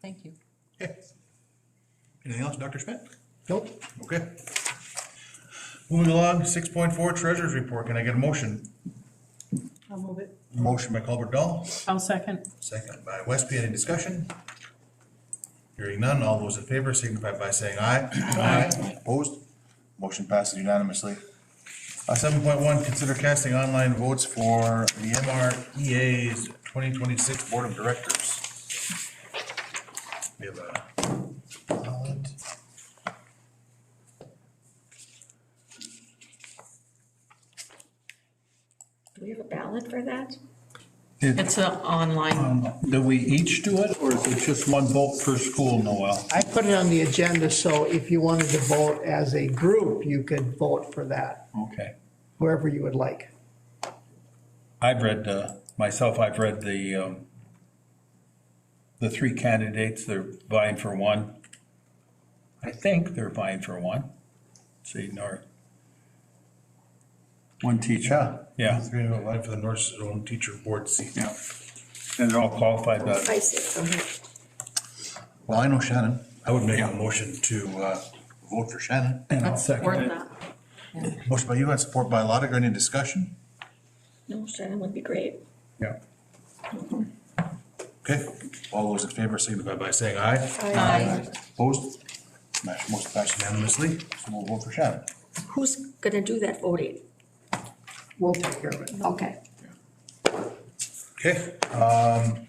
Thank you. Okay. Anything else, Dr. Schmidt? Nope. Okay. Moving along, six point four, treasurer's report. Can I get a motion? I'll move it. Motion by Culver Dahl, I'll second. second by Westby. Any discussion? Hearing none, all those in favor signify by saying aye. Aye. Opposed? Motion passes unanimously. Uh, seven point one, consider casting online votes for the MREA's twenty twenty-six Board of Directors. We have a ballot. Do we have a ballot for that? It's an online, Do we each do it, or is it just one vote per school, Noel? I put it on the agenda, so if you wanted to vote as a group, you could vote for that, Okay. wherever you would like. I've read, uh, myself, I've read the, um, the three candidates, they're vying for one. I think they're vying for one. See, nor. One teacher. Yeah. Three to one for the North Zone Teacher Board seat. Yeah. And they're all qualified, but I see, okay. Well, I know Shannon. I would make a motion to uh, vote for Shannon. And I'll or second it. not. Motion by you and support by Lotiger. Any discussion? No, Shannon would be great. Yeah. Okay. All those in favor signify by saying aye. Aye. Opposed? Motion motion passed unanimously. So we'll vote for Shannon. Who's gonna do that voting? We'll take care of it. Okay. Okay. um,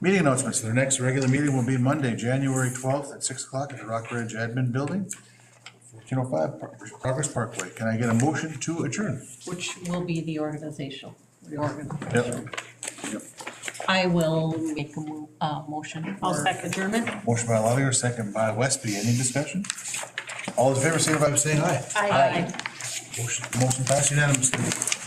Meeting announcements. Their next regular meeting will be Monday, January 12th at 6 o'clock at the Rock Ridge Admin Building, 1405 Pro- Progress Parkway. Can I get a motion to adjourn? Which will be the organizational, reorgan. Yep. I will make a mo- uh, motion. I'll second. German? Motion by Lotiger, second by Westby. Any discussion? All those in favor signify by saying aye. Aye. Motion, motion passed unanimously.